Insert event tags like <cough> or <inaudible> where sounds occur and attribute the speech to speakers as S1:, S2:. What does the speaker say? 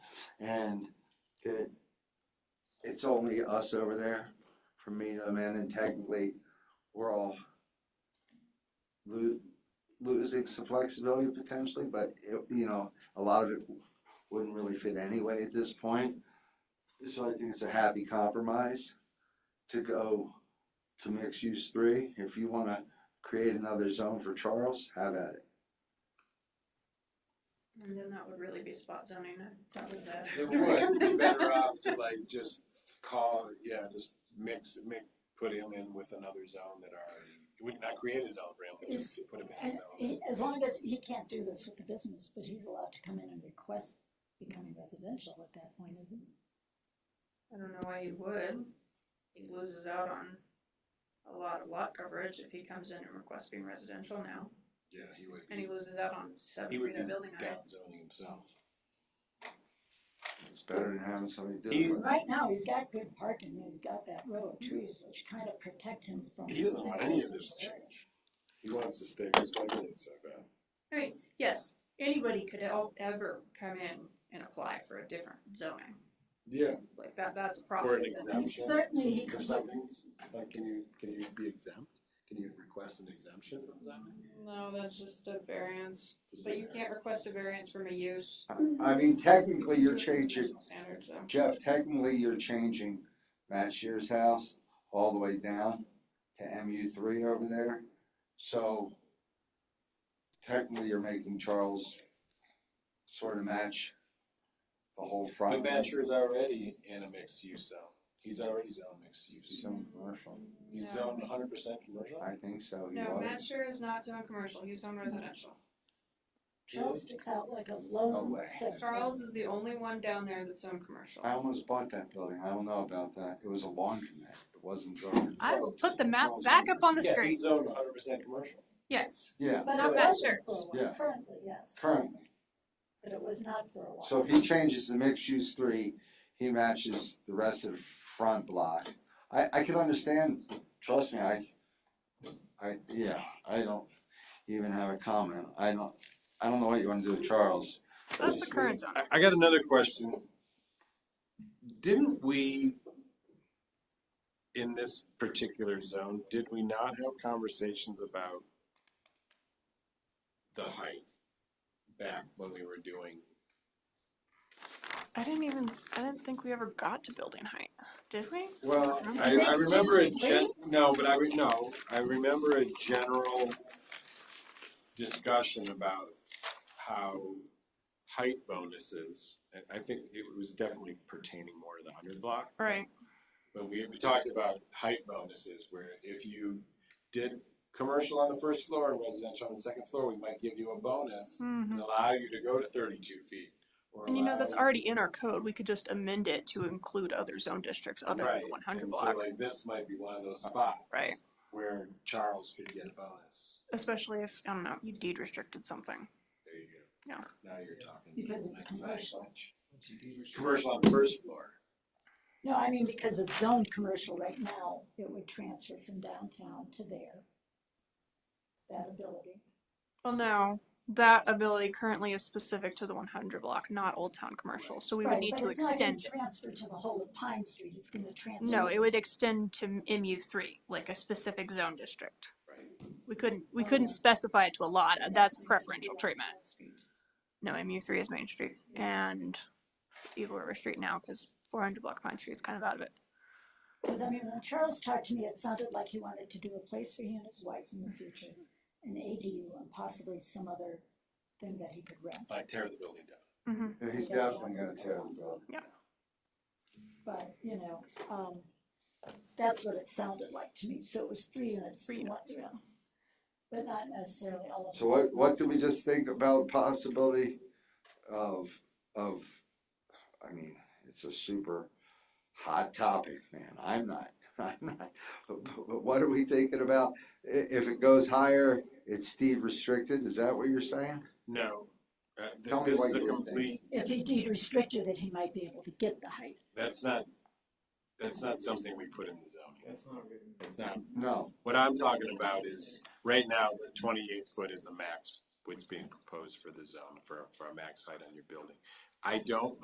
S1: and that it's only us over there from me to man, and technically, we're all lo- losing some flexibility potentially, but it, you know, a lot of it wouldn't really fit anyway at this point. So I think it's a happy compromise to go to mixed use three. If you wanna create another zone for Charles, have at it.
S2: And then that would really be spot zoning, I thought of that. uh,
S3: It would be better off to like just call, yeah, just mix, make, put him in with another zone that already, we would not create a zone for him, but just put him in a
S4: And
S3: zone.
S4: he, as long as he can't do this with the business, but he's allowed to come in and request becoming residential at that point, isn't he?
S2: <laughs> I don't know why he would. He loses out on a lot of lot coverage if he comes in and requests being residential now,
S3: Yeah, he would,
S2: and he loses out on seven
S3: he would
S2: feet
S3: be
S2: of building height.
S3: down zoning himself.
S1: It's better than having somebody do
S3: He-
S1: it.
S4: Right now, he's got good parking, and he's got that row of trees which kind of protect him from.
S3: He doesn't want
S4: that
S3: any of this
S4: area.
S3: change. He wants to stay just like it is, I bet.
S2: I mean, yes, anybody could el- ever come in and apply for a different zoning,
S3: Yeah.
S2: like that, that's a
S3: Or an
S2: process. that-
S4: And
S3: exemption.
S4: certainly he
S3: Or
S4: could,
S3: something, like, can you, can you be exempt? Can you request an exemption from zoning?
S2: No, that's just a variance, but you can't request a variance from a use.
S1: I mean, technically, you're changing,
S2: National Standards, so.
S1: Jeff, technically, you're changing Matt Shear's house all the way down to MU three over there. So technically, you're making Charles sort of match the whole front.
S3: But Bachelor's already in a mixed use zone. He's already zoned mixed use.
S1: Some commercial,
S3: He's
S2: No.
S3: zoned hundred percent commercial.
S1: I think so. he
S2: No,
S1: was.
S2: Matt Sure is not zone commercial, he's zone residential.
S4: Charles sticks out like a
S1: No
S4: lone.
S1: way.
S4: thing.
S2: Charles is the only one down there that's zone commercial.
S1: I almost bought that building. I don't know about that. It was a laundromat. It wasn't zoned.
S2: I will put the map back up on the
S3: Yeah,
S2: screen,
S3: he's zoned hundred percent commercial.
S2: yes.
S1: Yeah,
S4: But it
S3: Yeah.
S4: wasn't for a
S1: Yeah.
S4: while, currently, yes,
S1: currently.
S4: but it was not for a while.
S1: So if he changes the mixed use three, he matches the rest of the front block. I, I can understand, trust me, I, I, yeah, I don't even have a comment. I don't, I don't know what you wanna do with Charles.
S2: That's the current zone.
S3: I, I got another question. Didn't we, in this particular zone, did we not have conversations about the height back when we were doing?
S5: I didn't even, I didn't think we ever got to building height, did we?
S3: Well, I, I
S4: Mixed
S3: remember a
S4: use
S3: gen, no, but I, re- no, I remember a general discussion about how height bonuses, and I think it was definitely pertaining more to the hundred block.
S5: Right.
S3: But we, we talked about height bonuses where if you did commercial on the first floor and residential on the second floor, we might give you a bonus
S5: hmm
S3: and allow you to go to thirty-two feet. or
S5: And you know, that's
S3: allow-
S5: already in our code. We could just amend it to include other zone districts other than
S3: Right,
S5: the one hundred
S3: and
S5: block.
S3: So like this might be one of those spots.
S5: Right.
S3: Where Charles could get a bonus.
S5: Especially if, I don't know, you deed restricted something.
S3: There you go.
S5: Yeah.
S3: Now you're talking.
S4: Because it's
S3: That's not
S4: commercial.
S3: much. Commercial on the first floor.
S4: No, I mean, because it's zoned commercial right now, it would transfer from downtown to there. That ability.
S5: Well, no, that ability currently is specific to the one hundred block, not Old Town Commercial, so we would
S4: Right,
S5: need
S4: but
S5: to
S4: it's not gonna
S5: extend it.
S4: Transfer to the whole of Pine Street, it's gonna transfer.
S5: No, it would extend to MU three, like a specific zone district.
S3: Right.
S5: We couldn't, we
S4: Oh,
S5: couldn't
S4: yeah.
S5: specify it to a lot.
S4: That's
S5: That's
S4: gonna be
S5: preferential
S4: on
S5: treatment.
S4: Pine Street.
S5: No, MU three is Main Street and Eagle River Street now because four hundred block Pine Street's kind of out of it.
S4: Cause I mean, when Charles talked to me, it sounded like he wanted to do a place for he and his wife in the future, an ADU and possibly some other thing that he could rent,
S3: Like tear the building down.
S1: He's definitely gonna tear the building.
S4: but, you know, um, that's what it sounded like to me, so it was three units.
S5: Three
S4: one-
S5: units.
S4: yeah. But not necessarily all of them.
S1: So what, what did we just think about possibility of, of, I mean, it's a super hot topic, man. I'm not, <laughs> I'm not. But, but- but what are we thinking about? I- if it goes higher, it's deed restricted, is that what you're saying?
S3: No, uh, th-
S1: Tell me
S3: this
S1: what
S3: is a
S1: you would think.
S3: complete,
S4: If he deed restricted it, he might be able to get the height.
S3: that's not, that's not something we put in the zoning. That's not written. It's not,
S1: No,
S3: what I'm talking about is, right now, the twenty-eight foot is the max, what's being proposed for the zone, for, for a max height on your building. I don't